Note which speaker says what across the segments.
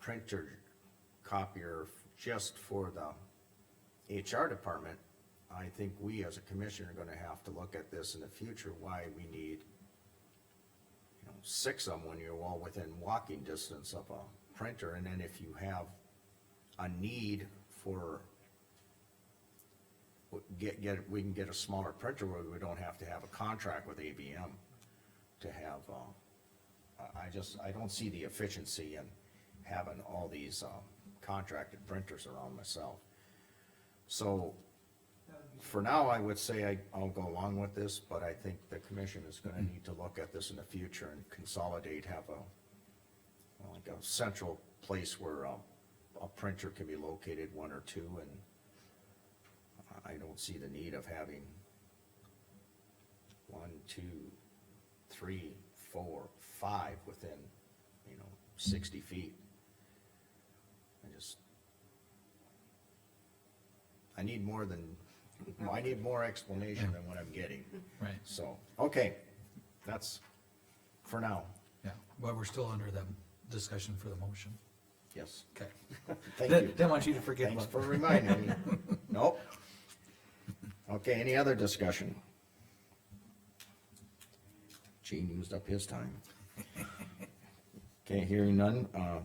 Speaker 1: printer copier just for the HR department, I think we as a commission are gonna have to look at this in the future, why we need you know, six of them when you're all within walking distance of a printer, and then if you have a need for get, get, we can get a smaller printer where we don't have to have a contract with ABM to have, um, I, I just, I don't see the efficiency in having all these, um, contracted printers around myself. So, for now, I would say I, I'll go along with this, but I think the commission is gonna need to look at this in the future and consolidate, have a, like a central place where, um, a printer can be located, one or two, and I- I don't see the need of having one, two, three, four, five within, you know, sixty feet. I just, I need more than, I need more explanation than what I'm getting.
Speaker 2: Right,
Speaker 1: So, okay, that's for now,
Speaker 2: yeah, but we're still under the discussion for the motion.
Speaker 1: yes,
Speaker 2: Okay.
Speaker 1: thank you.
Speaker 2: Didn't want you to forget
Speaker 1: Thanks
Speaker 2: about
Speaker 1: for reminding me. Nope. Okay, any other discussion? Gene used up his time. Okay, hearing none, uh,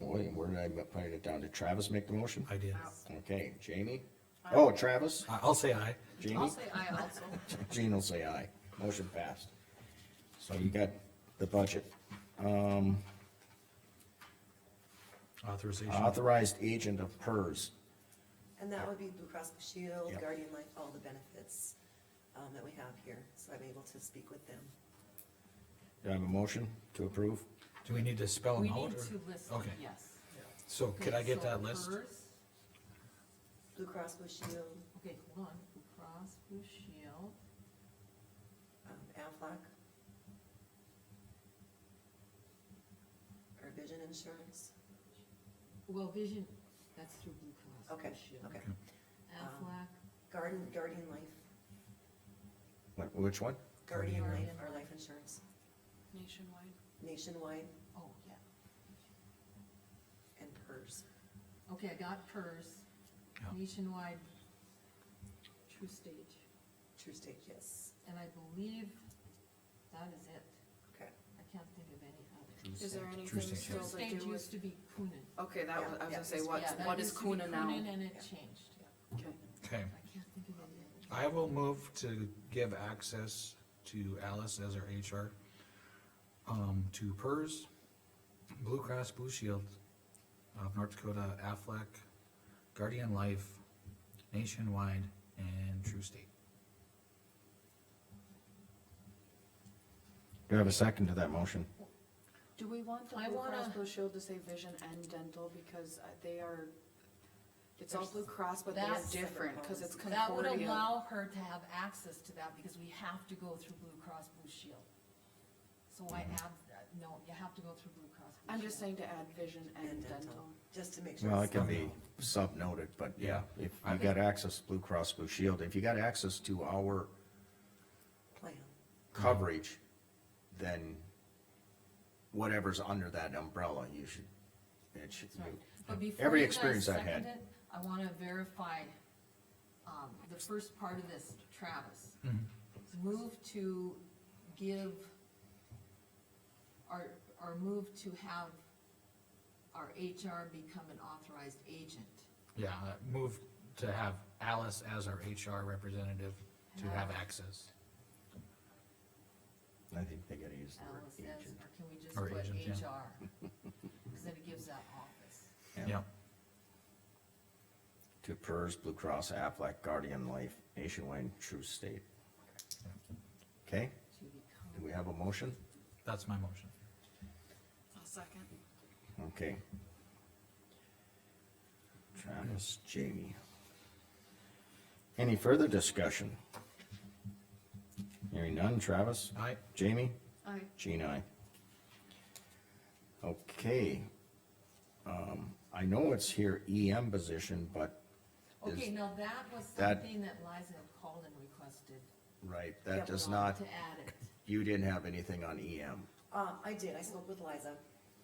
Speaker 1: boy, where did I put it down? Did Travis make the motion?
Speaker 2: I did.
Speaker 1: Okay, Jamie? Oh, Travis?
Speaker 2: I- I'll say aye.
Speaker 3: I'll
Speaker 1: Jamie?
Speaker 3: say I also.
Speaker 1: Gene will say aye. Motion passed. So you got the budget. Um,
Speaker 2: Authorization.
Speaker 1: authorized agent of PERS.
Speaker 4: And that would be Blue Cross Blue Shield,
Speaker 1: Yep.
Speaker 4: Guardian Life, all the benefits, um, that we have here, so I'm able to speak with them.
Speaker 1: Do I have a motion to approve?
Speaker 2: Do we need to spell
Speaker 3: We
Speaker 2: them out?
Speaker 3: need
Speaker 2: or-
Speaker 3: to list,
Speaker 2: Okay,
Speaker 3: yes.
Speaker 2: so could I
Speaker 3: Okay,
Speaker 2: get
Speaker 3: so
Speaker 2: that list?
Speaker 3: hers-
Speaker 4: Blue Cross Blue Shield,
Speaker 3: Okay, hold on, Blue Cross Blue Shield,
Speaker 4: um, Aflac. Or Vision Insurance,
Speaker 3: well, Vision, that's through Blue Cross Blue
Speaker 4: okay,
Speaker 3: Shield.
Speaker 4: okay.
Speaker 2: Um,
Speaker 3: Aflac,
Speaker 4: Guardian, Guardian Life,
Speaker 1: Wh- Which one?
Speaker 4: Guardian
Speaker 3: Guardian
Speaker 4: Life,
Speaker 3: Life.
Speaker 4: our life insurance,
Speaker 3: Nationwide,
Speaker 4: nationwide
Speaker 3: oh, yeah.
Speaker 4: and PERS.
Speaker 3: Okay, I got PERS,
Speaker 2: Yeah.
Speaker 3: Nationwide, True Stage,
Speaker 4: True State, yes,
Speaker 3: and I believe that is it.
Speaker 4: okay.
Speaker 3: I can't think of any other.
Speaker 5: Is there
Speaker 2: True
Speaker 5: anything
Speaker 2: state
Speaker 5: still
Speaker 3: True
Speaker 5: to
Speaker 3: Stage
Speaker 5: do
Speaker 3: used
Speaker 5: with?
Speaker 3: to be Coonan.
Speaker 5: Okay, that was, I was
Speaker 4: Yeah,
Speaker 5: gonna say,
Speaker 4: yeah.
Speaker 5: what's,
Speaker 3: Yeah, that
Speaker 5: what is
Speaker 3: used to be
Speaker 5: Kuna now?
Speaker 3: Coonan and it changed, yeah.
Speaker 5: Okay.
Speaker 2: Okay,
Speaker 3: I can't think of any other.
Speaker 2: I will move to give access to Alice as our HR, um, to PERS, Blue Cross Blue Shield of North Dakota, Aflac, Guardian Life, Nationwide, and True State.
Speaker 1: Do I have a second to that motion?
Speaker 5: Do we want the
Speaker 3: I
Speaker 5: Blue
Speaker 3: wanna-
Speaker 5: Cross Blue Shield to say vision and dental, because uh, they are, it's all Blue Cross, but they're
Speaker 3: That's-
Speaker 5: different, cause it's
Speaker 3: That would
Speaker 5: Concordia.
Speaker 3: allow her to have access to that because we have to go through Blue Cross Blue Shield. So I
Speaker 1: Mm-hmm.
Speaker 3: have, no, you have to go through Blue Cross. Blue
Speaker 5: I'm just
Speaker 3: Shield.
Speaker 5: saying to add vision and dental.
Speaker 4: Just to make sure.
Speaker 1: Well, it
Speaker 4: it's
Speaker 1: can
Speaker 4: not-
Speaker 1: be sub-noted, but yeah,
Speaker 2: Yeah.
Speaker 1: if you got access to Blue Cross Blue Shield, if you got access to our
Speaker 3: Mm-hmm.
Speaker 4: Plan,
Speaker 1: coverage, then whatever's under that umbrella, you should, it should,
Speaker 3: Sorry. But before
Speaker 1: every
Speaker 3: you guys
Speaker 1: experience I've
Speaker 3: second
Speaker 1: had.
Speaker 3: it, I wanna verify, um, the first part of this, Travis.
Speaker 1: Mm-hmm.
Speaker 3: Move to give, or, or move to have our HR become an authorized agent.
Speaker 2: Yeah, uh, move to have Alice as our HR representative to have access.
Speaker 1: I think they gotta use the word
Speaker 3: Alice says,
Speaker 1: agent.
Speaker 3: or can we just
Speaker 2: Or
Speaker 3: put
Speaker 2: agent, yeah.
Speaker 3: HR? Cause then it gives that office.
Speaker 2: Yeah,
Speaker 1: To PERS, Blue Cross, Aflac, Guardian Life, Nationwide, True State. Okay,
Speaker 3: to become.
Speaker 1: do we have a motion?
Speaker 2: that's my motion.
Speaker 5: I'll second.
Speaker 1: Okay. Travis, Jamie. Any further discussion? Hearing none, Travis,
Speaker 2: Aye,
Speaker 1: Jamie,
Speaker 5: I,
Speaker 1: Jean, I. Okay. Um, I know it's here EM position, but
Speaker 3: Okay,
Speaker 1: is,
Speaker 3: now that was
Speaker 1: that-
Speaker 3: something that Liza had called and requested.
Speaker 1: right, that
Speaker 3: That
Speaker 1: does
Speaker 3: we wanted
Speaker 1: not,
Speaker 3: To add it.
Speaker 1: you didn't have anything on E EM.
Speaker 4: Uh, I did, I spoke with Liza,